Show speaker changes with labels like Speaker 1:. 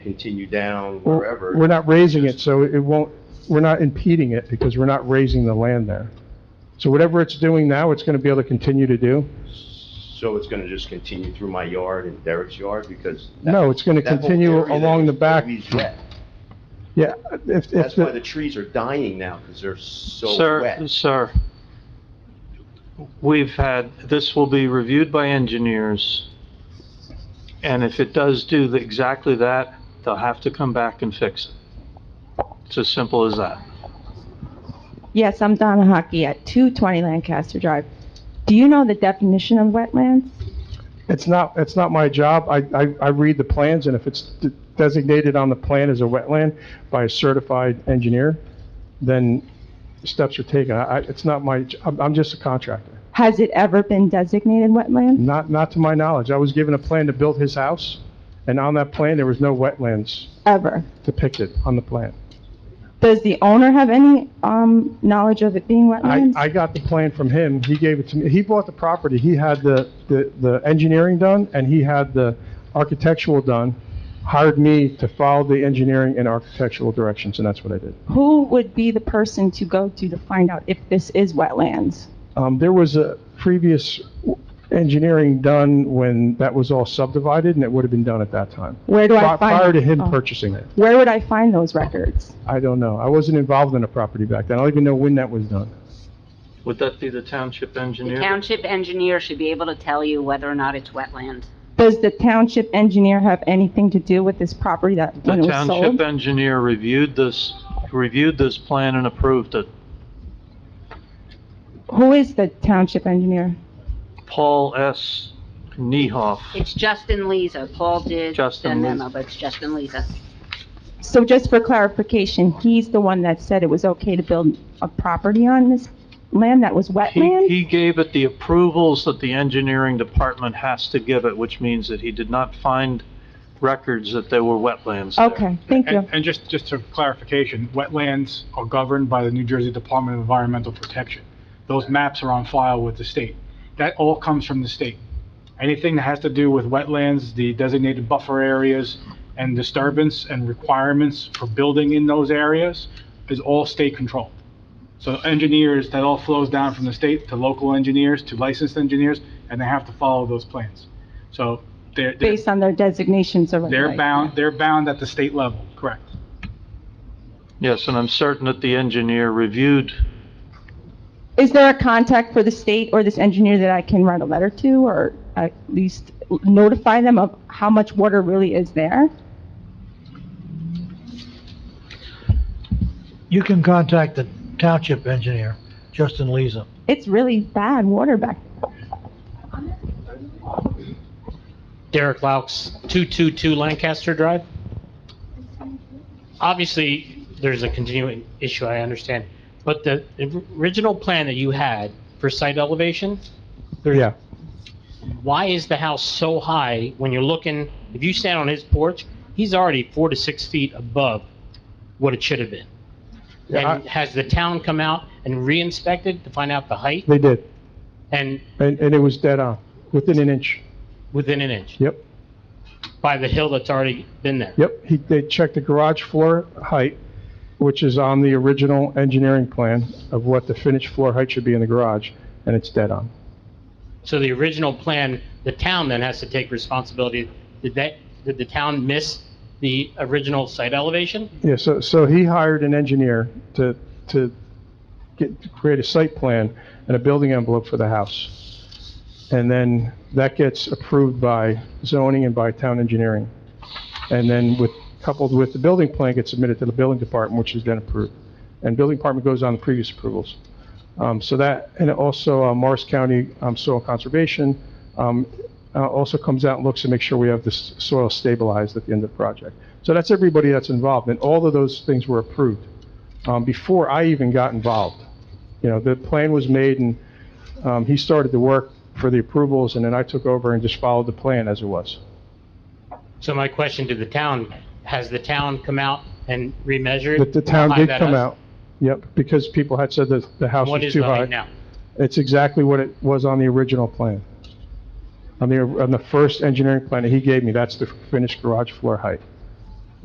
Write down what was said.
Speaker 1: continue down wherever.
Speaker 2: We're not raising it, so it won't, we're not impeding it because we're not raising the land there. So whatever it's doing now, it's going to be able to continue to do?
Speaker 1: So it's gonna just continue through my yard and Derek's yard because. that-
Speaker 2: No, it's going to
Speaker 1: that whole
Speaker 2: continue
Speaker 1: area there
Speaker 2: along the
Speaker 1: is
Speaker 2: back.
Speaker 1: always wet.
Speaker 2: Yeah, if, if,
Speaker 1: That's why the
Speaker 2: the-
Speaker 1: trees are dying now because they're so
Speaker 3: Sir,
Speaker 1: wet.
Speaker 3: sir, we've had, this will be reviewed by engineers, and if it does do the- exactly that, they'll have to come back and fix it. It's as simple as that.
Speaker 4: Yes, I'm Donna Hockey at 220 Lancaster Drive. Do you know the definition of wetlands?
Speaker 2: it's not, it's not my job. I, I, I read the plans and if it's de- designated on the plan as a wetland by a certified engineer, then steps are taken. I, I- it's not my, j- I'm, I'm just a contractor.
Speaker 4: Has it ever been designated wetland?
Speaker 2: Not, not to my knowledge. I was given a plan to build his house and on that plan, there was no wetlands
Speaker 4: Ever.
Speaker 2: depicted on the plan.
Speaker 4: Does the owner have any um, knowledge of it being
Speaker 2: I,
Speaker 4: wetlands?
Speaker 2: I got the plan from him, he gave it to me, he bought the property, he had the, the, the engineering done, and he had the architectural done, hired me to follow the engineering and architectural directions, and that's what I did.
Speaker 4: Who would be the person to go to to find out if this is wetlands?
Speaker 2: Um, there was a previous engineering done when that was all subdivided, and it would have been done at that time.
Speaker 4: Where do I
Speaker 2: Pri-
Speaker 4: find?
Speaker 2: Prior to him
Speaker 4: oh.
Speaker 2: purchasing it,
Speaker 4: Where would I find those records?
Speaker 2: I don't know, I wasn't involved in the property back then, I don't even know when that was done.
Speaker 3: Would that be the township
Speaker 5: The
Speaker 3: engineer?
Speaker 5: township engineer should be able to tell you whether or not it's wetland.
Speaker 4: Does the township engineer have anything to do with this property that
Speaker 3: The
Speaker 4: when it was
Speaker 3: township
Speaker 4: sold?
Speaker 3: engineer reviewed this, reviewed this plan and approved it.
Speaker 4: Who is the township engineer?
Speaker 3: Paul S. Niehoff.
Speaker 5: It's Justin Leza. Paul did
Speaker 3: Justin
Speaker 5: send
Speaker 3: Leza.
Speaker 5: memo, but it's Justin Leza.
Speaker 4: So just for clarification, he's the one that said it was okay to build a property on this land that was
Speaker 3: He,
Speaker 4: wetland?
Speaker 3: he gave it the approvals that the engineering department has to give it, which means that he did not find records that there were wetlands there.
Speaker 4: Okay, thank you.
Speaker 6: And, and just, just for clarification, wetlands are governed by the New Jersey Department of Environmental Protection. Those maps are on file with the state. That all comes from the state. Anything that has to do with wetlands, the designated buffer areas, and disturbance and requirements for building in those areas is all state controlled. So engineers, that all flows down from the state to local engineers, to licensed engineers, and they have to follow those plans. So they're, they're,
Speaker 4: Based on their designations already.
Speaker 6: they're bound, they're bound at the state level, correct?
Speaker 3: Yes, and I'm certain that the engineer reviewed,
Speaker 4: Is there a contact for the state or this engineer that I can write a letter to or at least notify them of how much water really is there?
Speaker 7: You can contact the township engineer, Justin Leza.
Speaker 4: It's really bad water back.
Speaker 8: Derek Laux, 222 Lancaster Drive. Obviously, there's a continuing issue, I understand, but the original plan that you had for site elevation,
Speaker 2: Yeah,
Speaker 8: why is the house so high when you're looking, if you stand on his porch, he's already four to six feet above what it should have been?
Speaker 2: Yeah,
Speaker 8: And has the town come out and re-inspected to find out the height
Speaker 2: they did,
Speaker 8: and
Speaker 2: and, and it was dead on, within an inch,
Speaker 8: within an inch
Speaker 2: yep.
Speaker 8: by the hill that's already been there?
Speaker 2: Yep, he, they checked the garage floor height, which is on the original engineering plan of what the finished floor height should be in the garage, and it's dead on.
Speaker 8: So the original plan, the town then has to take responsibility. Did that, did the town miss the original site elevation?
Speaker 2: Yeah, so, so he hired an engineer to, to get, to create a site plan and a building envelope for the house. And then that gets approved by zoning and by town engineering. And then with, coupled with the building plan gets submitted to the building department, which is then approved. And building department goes on the previous approvals. Um, so that, and also uh, Morris County, um, Soil Conservation, um, uh, also comes out and looks to make sure we have the s- soil stabilized at the end of the project. So that's everybody that's involved, and all of those things were approved, um, before I even got involved. You know, the plan was made and, um, he started the work for the approvals, and then I took over and just followed the plan as it was.
Speaker 8: So my question to the town, has the town come out and remeasured?
Speaker 2: But the town
Speaker 8: how high
Speaker 2: did
Speaker 8: that
Speaker 2: come
Speaker 8: is?
Speaker 2: out, yep, because people had said that the house
Speaker 8: What
Speaker 2: was
Speaker 8: is
Speaker 2: too
Speaker 8: the
Speaker 2: high.
Speaker 8: height now?
Speaker 2: It's exactly what it was on the original plan. On the, on the first engineering plan that he gave me, that's the finished garage floor height.